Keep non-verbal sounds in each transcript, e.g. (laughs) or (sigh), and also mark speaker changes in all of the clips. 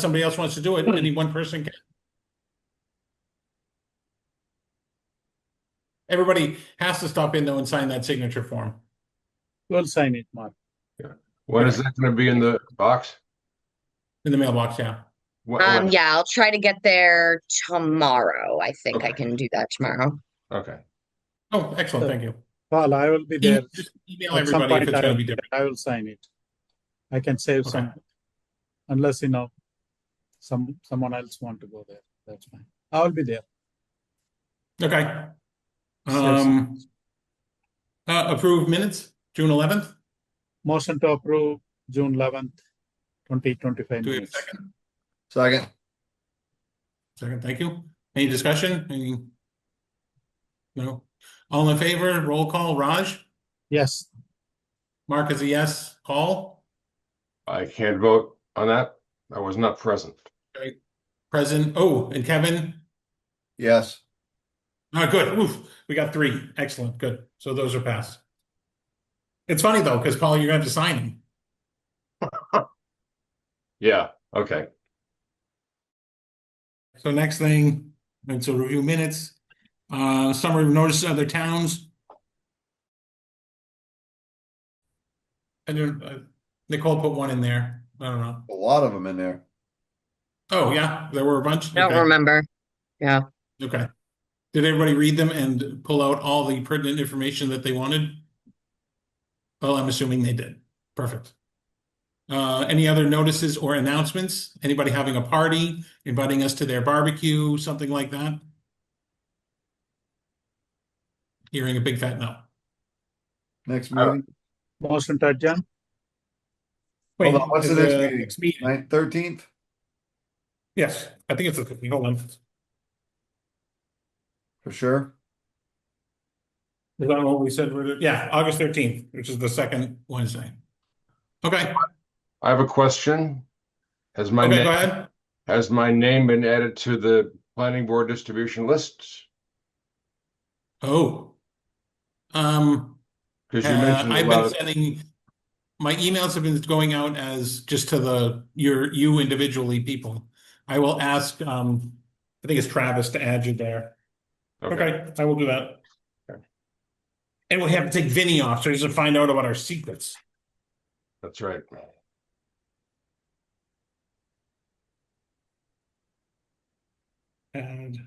Speaker 1: somebody else wants to do it, any one person can. Everybody has to stop in though and sign that signature form.
Speaker 2: We'll sign it, Mark.
Speaker 3: When is that gonna be in the box?
Speaker 1: In the mailbox, yeah.
Speaker 3: What,
Speaker 4: Um,
Speaker 3: what-
Speaker 4: yeah, I'll try to get there tomorrow. I think I
Speaker 3: Okay.
Speaker 4: can do that tomorrow.
Speaker 3: Okay,
Speaker 1: Oh, excellent, thank you. E-
Speaker 2: Paul, I will be there.
Speaker 1: Just Email
Speaker 2: At some
Speaker 1: everybody if
Speaker 2: point,
Speaker 1: it's
Speaker 2: I
Speaker 1: gonna
Speaker 2: will
Speaker 1: be
Speaker 2: be there.
Speaker 1: different.
Speaker 2: I will sign it. I can save
Speaker 1: Okay.
Speaker 2: some, unless, you know, some, someone else want to go there, that's fine. I will be there.
Speaker 1: Okay.
Speaker 2: Yes.
Speaker 1: Um. Uh, approved minutes, June eleventh,
Speaker 2: Motion to approve June eleventh, twenty twenty-five
Speaker 1: do we have a
Speaker 2: minutes.
Speaker 1: second?
Speaker 5: Second,
Speaker 1: Second, thank you. Any discussion? Any? No? All in favor, roll call, Raj,
Speaker 2: Yes,
Speaker 1: Mark is a yes, Paul,
Speaker 3: I can't vote on that. I was not present.
Speaker 1: present, oh, and Kevin?
Speaker 5: yes,
Speaker 1: Ah, good. Oof, we got three. Excellent. Good. So those are passed. It's funny though, because Paul, you're gonna have to sign them.
Speaker 3: Yeah, okay.
Speaker 1: So next thing, it's a review minutes, uh, summary of notice of other towns. And then uh, Nicole put one in there. I don't know.
Speaker 5: a lot of them in there.
Speaker 1: Oh, yeah, there were a bunch.
Speaker 4: I don't
Speaker 1: Okay.
Speaker 4: remember. Yeah.
Speaker 1: Okay. Did everybody read them and pull out all the pertinent information that they wanted? Well, I'm assuming they did. Perfect. Uh, any other notices or announcements? Anybody having a party, inviting us to their barbecue, something like that? Hearing a big fat no.
Speaker 5: Next meeting,
Speaker 2: motion to adjourn,
Speaker 1: Wait,
Speaker 5: Hold
Speaker 1: uh,
Speaker 5: on, what's the
Speaker 1: there's
Speaker 5: next
Speaker 1: a-
Speaker 5: meeting? nine, thirteenth?
Speaker 1: Yes, I think it's the fifteenth. Hold on. Is
Speaker 5: For sure.
Speaker 1: that what we said? we're- Yeah, August thirteenth, which is the second Wednesday. Okay,
Speaker 3: I have a question. Has my,
Speaker 1: okay, go
Speaker 3: name
Speaker 1: ahead.
Speaker 3: has my name been added to the planning board distribution list?
Speaker 1: Oh. Um,
Speaker 3: Because you
Speaker 1: uh,
Speaker 3: mentioned
Speaker 1: I've been
Speaker 3: about,
Speaker 1: sending, my emails have been going out as just to the, your, you individually people. I will ask, um, I think it's Travis to add you there.
Speaker 3: okay,
Speaker 1: I will do that. And we have to take Vinny off, so he doesn't find out about our secrets.
Speaker 3: that's right.
Speaker 1: And.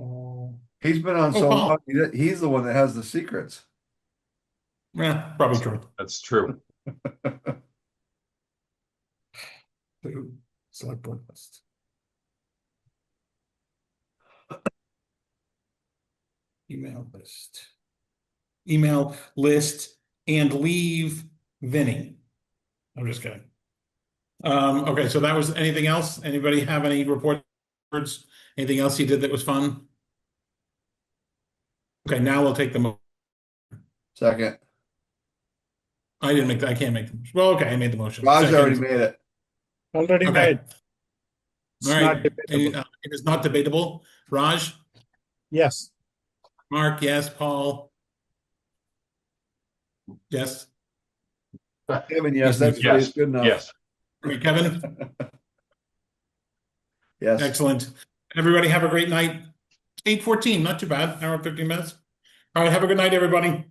Speaker 1: oh,
Speaker 5: He's been on so
Speaker 1: Oh, wow.
Speaker 5: long, he- he's the one that has the secrets. (laughs)
Speaker 1: Yeah, eh, probably true.
Speaker 3: That's true.
Speaker 1: Select board list. Email list. Email list and leave Vinny. I'm just kidding. Um, okay, so that was, anything else? Anybody have any reports? Anything else you did that was fun? Okay, now we'll take the, mo-
Speaker 5: Second,
Speaker 1: I didn't make, the- I can't make, the- well, okay, I made the motion.
Speaker 5: Raj already
Speaker 1: Second.
Speaker 5: made it.
Speaker 2: already
Speaker 1: Okay.
Speaker 2: made,
Speaker 1: All
Speaker 2: It's not
Speaker 1: right, it
Speaker 2: debatable.
Speaker 1: uh, it is not debatable. Raj,
Speaker 2: yes.
Speaker 1: Mark, yes, Paul? Yes,
Speaker 5: Kevin, yes, that's
Speaker 3: Yes,
Speaker 5: good enough.
Speaker 3: Yes,
Speaker 1: Great, Kevin,
Speaker 5: Yes,
Speaker 1: excellent. Everybody have a great night. Eight fourteen, not too bad, hour and fifteen minutes. All right, have a good night, everybody.